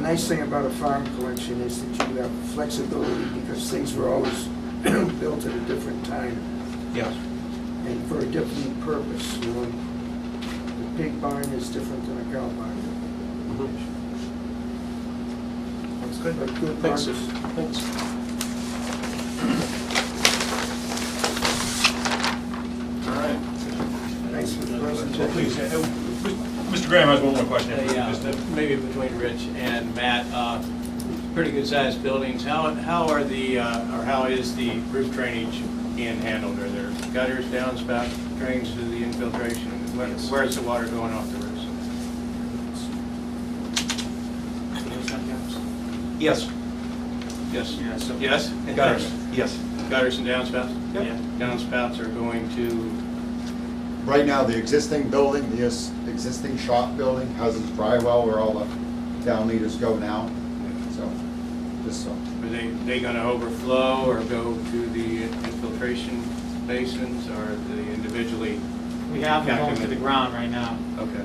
nice thing about a farm collection is that you have flexibility because things were always built at a different time Yes. and for a different purpose, you know. The pig barn is different than a cow barn. That's But good Thanks. barns- Thanks. All right. Thanks for the Well, Please, presentation. uh, Mr. Graham has one more question. Uh, Yeah, Just, uh, but maybe between Rich and Matt, uh, pretty good-sized buildings. How, how are the, uh, or how is the roof drainage being handled? Are there gutters, downspout drains to the infiltration? Where- Where's the water going off the roofs? Yes. Yes, Yeah, so- yes? Gutters, yes. Gutters and downspouts? Yep. Yeah. Downspouts are going to, Right now, the existing building, the es- existing shop building, houses dry well where all the down leaders go now, so, just so. are they, they gonna overflow or go to the infiltration basins or the individually? We have them going to the calculated? ground right now, Okay.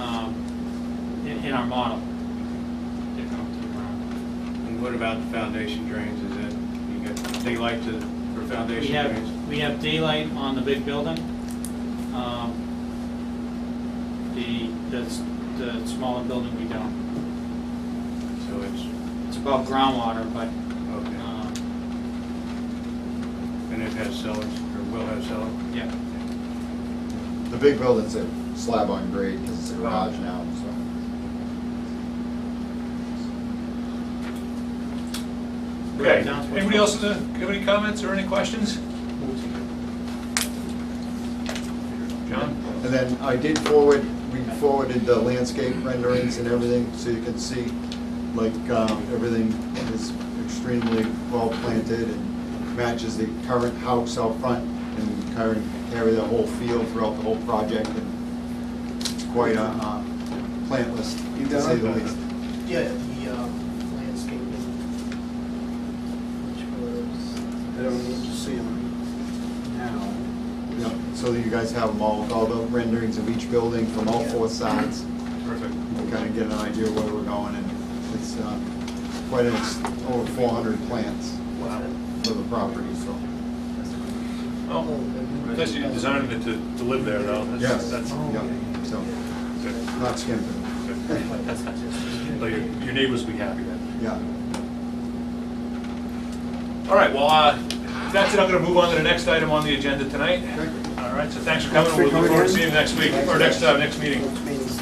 um, in, in our model. They're going to the ground. And what about the foundation drains, is it, you got daylight to, for We foundation drains? have, we have daylight on the big building. Um, The, the, s- the smaller building we don't. So it's, It's above groundwater, but, okay, um, and it has cellars, or will have cellars? yeah. The big building's a slab on grade because it's a garage now, so. Okay, Down to- anybody else uh, have any comments or any questions? John? And then I did forward, we forwarded the landscape renderings and everything, so you can see, like, um, everything is extremely well planted and matches the current house out front and current, carry the whole field throughout the whole project and it's quite a, uh, plant list, to say the least. Yeah, the uh, um, landscaping. Which was, I don't need to see them now. Yeah, so you guys have them all, with all the renderings of each building from all four sides. Perfect. and kind of get an idea of where we're going, and it's uh, quite, a- it's over 400 plants Wow. for the property, so. Well, unless you designed it Oh, to, to live there though. that's- Yes, That's, yeah, so, good, not skimping, good. Though Your your neighbors will be happy then. yeah. All right, well, uh, that's it, I'm gonna move on to the next item on the agenda tonight. Okay. All right, so thanks for coming, we'll look forward to seeing you next week, or next, uh, next meeting. Means-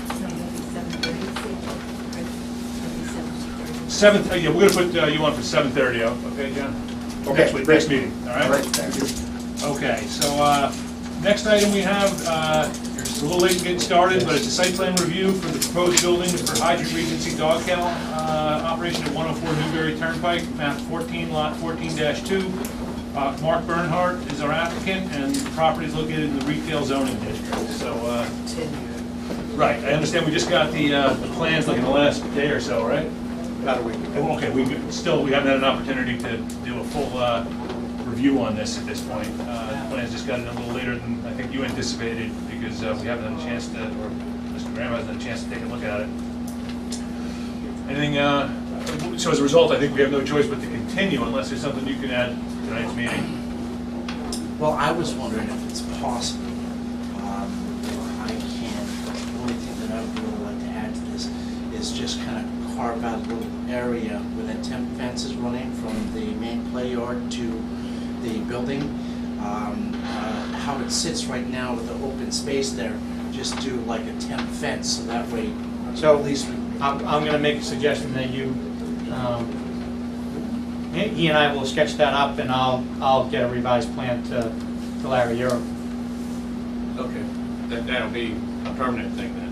Seventh, uh, yeah, we're gonna put uh, you on for seven thirty, okay, John? Next week, next meeting, all right? All right, thank you. Okay, so, uh, next item we have, uh, it's a little late getting started, but it's a site plan review for the proposed buildings for Hydrant Regency Dog Kennel, uh, operation at one oh four Newberry Turnpike, map fourteen, lot fourteen two. Uh, Mark Bernhardt is our applicant, and the property is located in the retail zoning district, so, uh, right, I understand we just got the, uh, the plans like in the last day or so, right? About a week ago. Oh, Okay, we, still, we haven't had an opportunity to do a full uh, review on this at this point. Uh, The plans just got in a little later than I think you anticipated, because uh, we haven't had a chance to, or Mr. Graham hasn't had a chance to take a look at it. Anything, uh, so as a result, I think we have no choice but to continue unless there's something you can add to tonight's meeting. Well, I was wondering if it's possible, um, or I can, the only thing that I would really like to add to this is just kind of carve out a little area where that temp fence is running from the main play yard to the building. Um, uh, How it sits right now with the open space there, just do like a temp fence, so that way So- at least we I'm, I'm gonna make a suggestion that you, um, he- he and I will sketch that up and I'll, I'll get a revised plan to, to Larry Euro. Okay, that, that'll be a permanent thing then.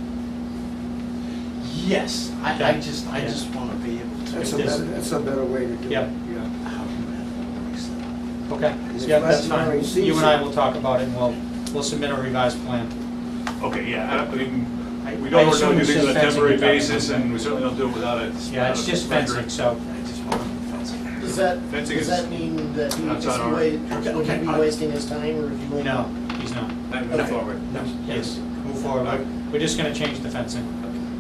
Yes, I, I Okay. just, I Yeah. just want to be able to. That's a better, that's a better way to do it. Yep. Yeah. How do I voice that? Okay, If yeah, that's that's how fine. he sees You and I it. will talk about it and we'll, we'll submit a revised plan. Okay, yeah, I- I mean, I- we I don't assume normally do it's things just on a fencing temporary and ducting. basis, and we certainly don't do it without a. Yeah, it's just fencing, so, I just want to fence it. does that, Fencing does is- that mean that he, That's is on he our- wa- would he Okay, be I- wasting his time reviewing? no, he's not. Then move forward. No, yes, move forward. We're- We're just gonna change the fencing.